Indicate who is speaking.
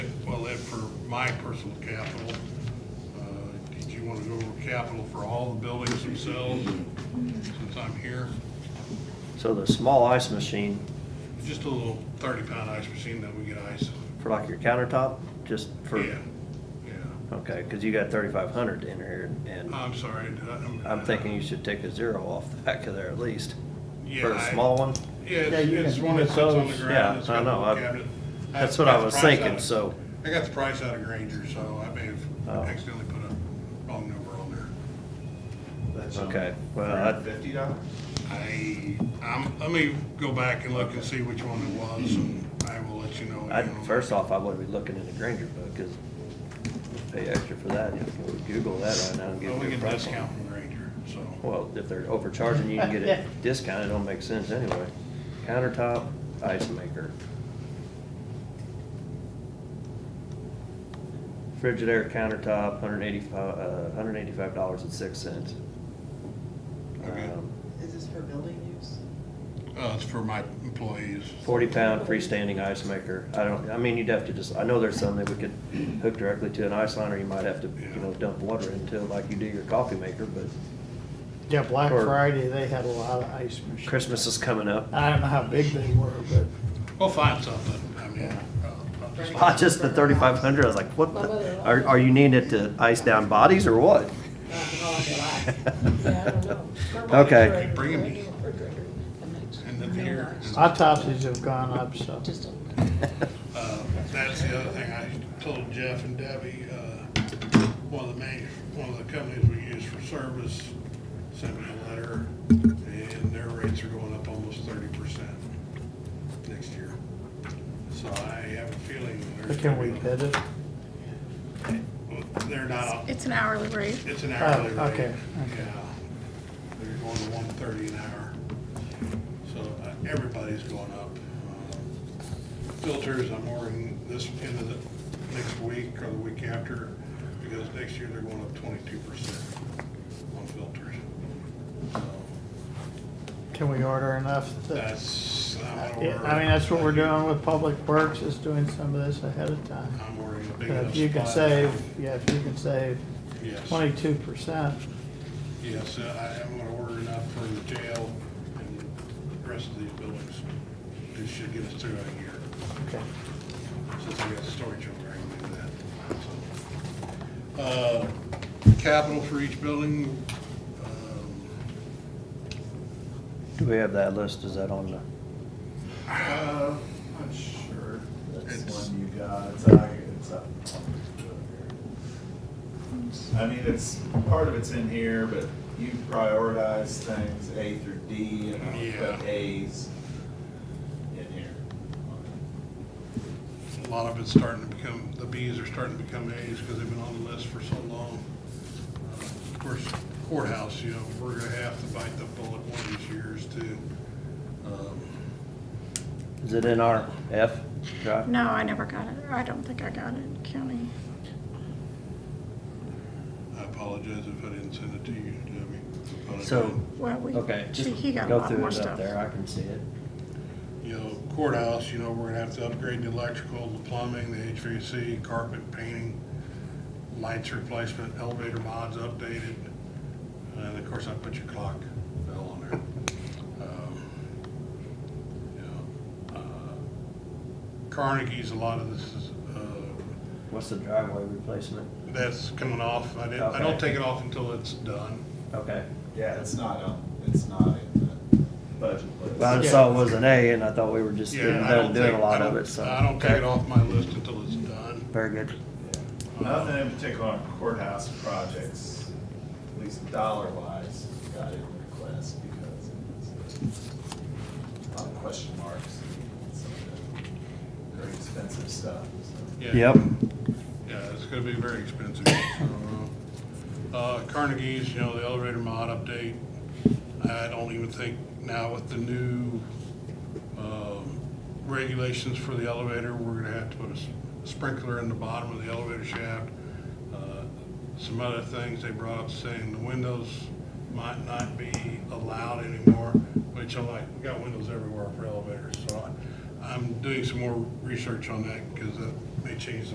Speaker 1: my personal capital. Uh, Did you want to go over capital for all the buildings themselves, since I'm here?
Speaker 2: So the small ice machine
Speaker 1: Just a little thirty-pound ice machine that we get ice.
Speaker 2: for like your countertop, just for,
Speaker 1: Yeah, yeah.
Speaker 2: okay, because you got thirty-five hundred in here, and
Speaker 1: I'm sorry. did I-
Speaker 2: I'm thinking you should take a zero off the back of there at least.
Speaker 1: Yeah,
Speaker 2: For a
Speaker 1: I-
Speaker 2: small one,
Speaker 1: Yeah,
Speaker 3: Yeah,
Speaker 1: it's
Speaker 3: you
Speaker 1: it's
Speaker 3: can-
Speaker 1: one that sits on the
Speaker 3: Yeah,
Speaker 1: ground. It's
Speaker 2: I
Speaker 1: got a
Speaker 2: know,
Speaker 1: little
Speaker 2: I-
Speaker 1: cabinet. I
Speaker 2: that's what I
Speaker 1: got the
Speaker 2: was
Speaker 1: price out
Speaker 2: thinking,
Speaker 1: of-
Speaker 2: so-
Speaker 1: I got the price out of Granger, so I may
Speaker 2: Oh.
Speaker 1: have accidentally put a wrong number on there.
Speaker 4: That's
Speaker 2: okay, well, I,
Speaker 4: Fifty dollars?
Speaker 1: I, I'm, let me go back and look and see which one it was, and I will let you know.
Speaker 2: I,
Speaker 1: again.
Speaker 2: first off, I would be looking in the Granger book, because pay extra for that, you know, Google that right now and
Speaker 1: Well,
Speaker 2: give
Speaker 1: we
Speaker 2: you a
Speaker 1: get a
Speaker 2: price on it.
Speaker 1: discount from Granger, so.
Speaker 2: Well, if they're overcharging, you can get
Speaker 3: Yeah.
Speaker 2: a discount, it don't make sense anyway. Countertop, ice maker. Frigidaire countertop, hundred eighty-five, uh, hundred eighty-five dollars and six cents. Um,
Speaker 1: Okay.
Speaker 5: Is this for building use?
Speaker 1: Uh, it's for my employees.
Speaker 2: Forty-pound freestanding ice maker, I don't, I mean, you'd have to just, I know there's some that we could hook directly to an ice line, or you might have to, you know, dump water into it like you do your coffee maker, but
Speaker 3: Yeah, Black
Speaker 2: Or-
Speaker 3: Friday, they had a lot of ice machines.
Speaker 2: Christmas is coming up.
Speaker 3: I don't know how big they were, but
Speaker 1: We'll find something, I mean, uh, I'll just-
Speaker 2: Ah, just the thirty-five hundred, I was like, what, the- are, are you needing it to ice down bodies or what?
Speaker 5: Yeah, I don't know.
Speaker 2: Okay.
Speaker 1: Bring 'em. And then here.
Speaker 3: autopsies have gone up, so.
Speaker 5: Just a.
Speaker 1: Uh, That's the other thing I told Jeff and Debbie, uh, one of the main, one of the companies we use for service sent me a letter, and their rates are going up almost thirty percent next year. So I have a feeling.
Speaker 3: But
Speaker 1: there's
Speaker 3: can we
Speaker 1: gonna be-
Speaker 3: bid it?
Speaker 1: Well, They're not,
Speaker 6: It's an hourly rate.
Speaker 1: it's an hourly
Speaker 3: Oh,
Speaker 1: rate.
Speaker 3: okay, okay.
Speaker 1: Yeah, they're going to one thirty an hour. So uh, everybody's going up. Um, Filters, I'm ordering this end of the next week or the week after, because next year they're going up twenty-two percent on filters. So
Speaker 3: Can we order enough? that-
Speaker 1: That's, I'm
Speaker 3: Yeah,
Speaker 1: ordering.
Speaker 3: I mean, that's what we're doing with Public Works, is doing some of this ahead of time.
Speaker 1: I'm ordering a big
Speaker 3: But
Speaker 1: enough.
Speaker 3: If you can
Speaker 1: supply.
Speaker 3: save, yeah, if you can save
Speaker 1: Yes.
Speaker 3: twenty-two percent,
Speaker 1: Yes, uh, I am gonna order enough for the jail and the rest of these buildings. This should get us through a year,
Speaker 3: okay.
Speaker 1: since we got storage over there and do that. so. Uh, Capital for each building, um,
Speaker 2: Do we have that list, is that on the,
Speaker 4: Uh, I'm sure.
Speaker 1: It's-
Speaker 4: That's one you got, it's, uh, it's up. I mean, it's, part of it's in here, but you prioritize things A through D, and I
Speaker 1: Yeah.
Speaker 4: put As in here.
Speaker 1: a lot of it's starting to become, the Bs are starting to become As because they've been on the list for so long. Uh, Of course, courthouse, you know, we're gonna have to bite the bullet one of these years too. Um,
Speaker 2: is it in our F drive?
Speaker 6: No, I never got it. I don't think I got it, county.
Speaker 1: I apologize if I didn't send it to you, Debbie. but I
Speaker 2: So-
Speaker 1: did.
Speaker 6: Well, we,
Speaker 2: Okay, just
Speaker 6: see, he got a
Speaker 2: go
Speaker 6: lot
Speaker 2: through
Speaker 6: more
Speaker 2: it up
Speaker 6: stuff.
Speaker 2: there, I can see it.
Speaker 1: You know, courthouse, you know, we're gonna have to upgrade the electrical, the plumbing, the HVAC, carpet painting, lights replacement, elevator mods updated, and of course, I put your clock bell on there. Um, you know, uh, Carnegie's, a lot of this is, uh,
Speaker 2: What's the driveway replacement?
Speaker 1: that's coming off. I didn't, I don't
Speaker 2: Okay.
Speaker 1: take it off until it's done.
Speaker 2: Okay,
Speaker 4: Yeah, it's not, um, it's not in the budget list.
Speaker 2: well, I saw it was an A, and I thought we were just
Speaker 1: Yeah,
Speaker 2: getting
Speaker 1: I
Speaker 2: done
Speaker 1: don't
Speaker 2: doing a
Speaker 1: take- I
Speaker 2: lot of
Speaker 1: don't-
Speaker 2: it, so.
Speaker 1: I don't take
Speaker 2: okay.
Speaker 1: it off my list until it's done.
Speaker 2: Very good.
Speaker 4: Yeah. Nothing in particular on courthouse projects, at least dollar wise, got in request because it's a lot of question marks, and some of the very expensive stuff, so.
Speaker 1: Yeah.
Speaker 2: Yep,
Speaker 1: Yeah, it's gonna be very expensive. so, Uh, Carnegie's, you know, the elevator mod update, I don't even think now with the new, um, regulations for the elevator, we're gonna have to put a s- sprinkler in the bottom of the elevator shaft. Uh, Some other things they brought up saying the windows might not be allowed anymore, which I'm like, we got windows everywhere for elevators, so I, I'm doing some more research on that, because that may change the